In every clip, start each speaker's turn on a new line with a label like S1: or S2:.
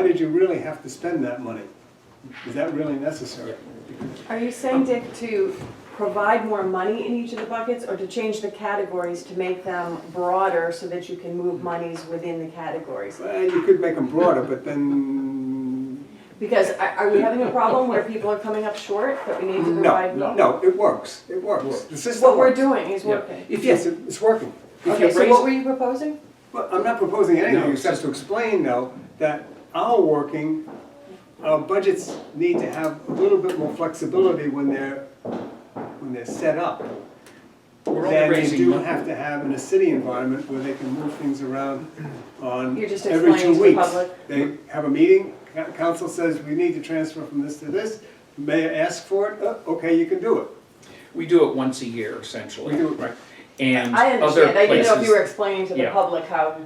S1: Why did you really have to spend that money? Is that really necessary?
S2: Are you
S1: Um,
S2: saying, Dick, to provide more money in each of the buckets or to change the categories to make them broader so that you can move monies within the categories?
S1: Well, you could make them broader, but then,
S2: Because are are we having a problem where people are coming up short that we need to
S1: no,
S2: provide?
S1: no, it works, it works. The system
S2: What we're
S1: works.
S2: doing is
S3: Yeah.
S2: working.
S1: If- Yes, it- it's working. I'm
S2: Okay,
S1: just
S2: so
S1: raising-
S2: what were you proposing?
S1: Well, I'm not proposing anything
S3: No.
S1: except to explain though, that our working, our budgets need to have a little bit more flexibility when they're, when they're set up.
S3: We're only
S1: than they
S3: raising
S1: do
S3: mon-
S1: have to have in a city environment where they can move things around on
S2: You're just
S1: every
S2: explaining
S1: two
S2: to the
S1: weeks.
S2: public.
S1: They have a meeting, co- council says, we need to transfer from this to this, mayor asks for it, "Uh, okay, you can do it.
S3: We do it once a year essentially.
S1: We do it, right.
S3: And
S2: I
S3: other
S2: understand, I didn't know if you were
S3: places.
S2: explaining to the
S3: yeah.
S2: public how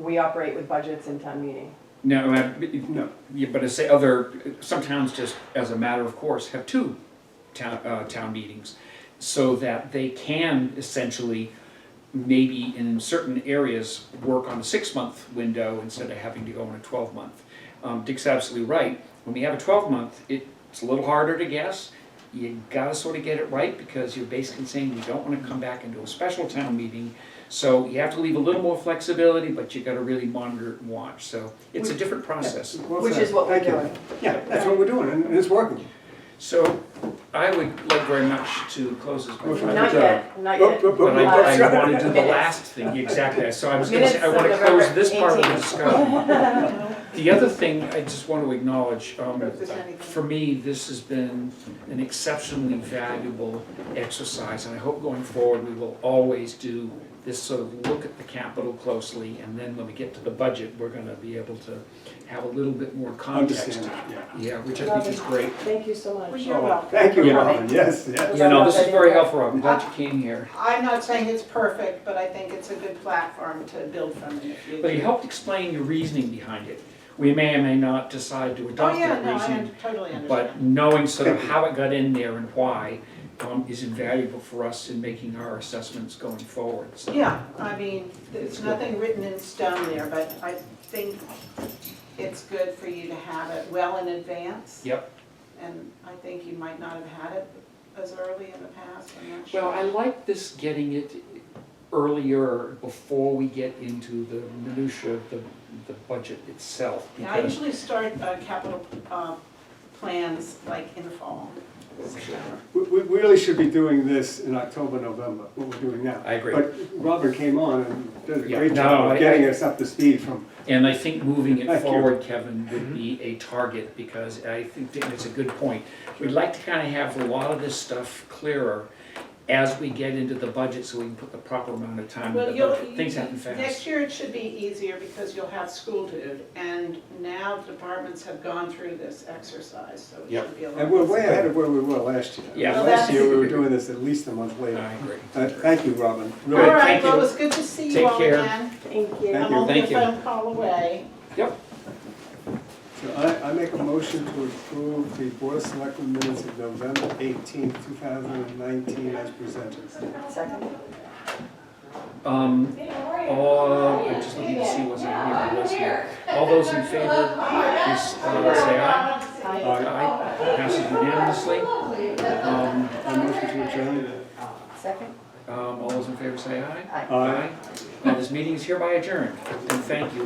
S2: we operate with budgets in town meeting.
S3: No,
S1: No.
S3: I- yeah, but I say other, some towns just as a matter of course have two town, uh, town meetings. So that they can essentially, maybe in certain areas, work on a six-month window instead of having to go on a twelve-month. Um, Dick's absolutely right. When we have a twelve-month, it's a little harder to guess. You gotta sort of get it right because you're basically saying you don't wanna come back into a special town meeting. So you have to leave a little more flexibility, but you gotta really monitor and watch. So it's a different process.
S1: Well
S2: Which
S1: said.
S2: is what we're
S1: Thank you.
S2: doing.
S1: Yeah, that's what we're doing, and and it's working.
S3: So I would like very much to close this.
S1: Motion to
S2: Not
S1: adjourn.
S2: yet, not
S1: Nope, nope,
S2: yet.
S1: nope,
S3: But
S1: nope,
S3: I,
S1: that's
S3: I
S1: right.
S3: wanna do the
S2: Minutes.
S3: last thing, exactly, so I was gonna say, I wanna
S2: Minutes of November
S3: close this part of the
S2: 18th.
S3: discussion. The other thing I just wanna acknowledge, um, for me, this has been an exceptionally valuable exercise, and I hope going forward, we will always do this sort of look at the capital closely, and then when we get to the budget, we're gonna be able to have a little bit more context.
S1: Understand, yeah.
S3: Yeah, which I think is great.
S2: Thank you so much.
S4: You're
S1: Oh,
S4: welcome.
S1: Thank you,
S3: Yeah.
S1: Robin, yes, yes.
S3: Yeah, no, this is very helpful, I'm glad you came here.
S4: I'm not saying it's perfect, but I think it's a good platform to build from in the future.
S3: But he helped explain your reasoning behind it. We may or may not decide to
S4: Oh,
S3: adopt
S4: yeah,
S3: that
S4: no, I
S3: reasoning,
S4: un- totally
S3: but
S4: understand.
S3: knowing sort of how it got in there and why um, is invaluable for us in making our assessments going forward, so.
S4: Yeah, I mean,
S3: It's
S4: there's
S3: good.
S4: nothing written in stone there, but I think it's good for you to have it well in advance.
S3: Yep.
S4: And I think you might not have had it as early in the past, I'm not sure.
S3: Well, I like this getting it earlier, before we get into the minutia of the, the budget itself.
S4: Yeah, I
S3: because-
S4: usually start uh, capital uh, plans like in the fall.
S1: We, we really should be doing this in October, November, what we're doing now.
S3: I agree.
S1: But Robin came on and did a
S3: Yeah,
S1: great
S3: no,
S1: job
S3: I-
S1: of getting
S3: I-
S1: us up to speed from,
S3: And I think moving it
S1: Thank you.
S3: forward, Kevin, would be a target, because I think that it's a good point. We'd like to kind of have a lot of this stuff clearer as we get into the budget, so we can put the proper amount of time
S4: Well,
S3: in the
S4: you'll,
S3: budget. Things happen
S4: next
S3: fast.
S4: year it should be easier because you'll have school food, and now departments have gone through this exercise, so it
S3: Yep.
S4: should be a lot.
S1: and we're way
S4: easier.
S1: ahead of where we were last year.
S3: Yeah. Well,
S1: Last
S4: that's-
S1: year, we were doing this at least a month
S3: I
S1: later.
S3: agree.
S1: Uh, Thank you, Robin,
S4: All
S1: really.
S4: right,
S3: thank you.
S4: well, it was good to see you
S3: Take
S4: all
S3: care.
S4: again.
S2: Thank
S1: Thank
S2: you.
S4: I'm only a
S3: Thank you.
S4: phone call away.
S3: Yep,
S1: So I, I make a motion to approve the Board of Selectmen minutes of November eighteenth, two thousand and nineteen as presented.
S2: Second.
S3: um, all, I just need to see what's in here, who was here. All those in favor, please, uh, say aye. Aye, passes unanimously. Um,
S1: I motion to adjourn.
S2: Second?
S3: um, all those in favor say aye.
S2: Aye.
S1: Aye.
S3: Now, this meeting is hereby adjourned, and thank you.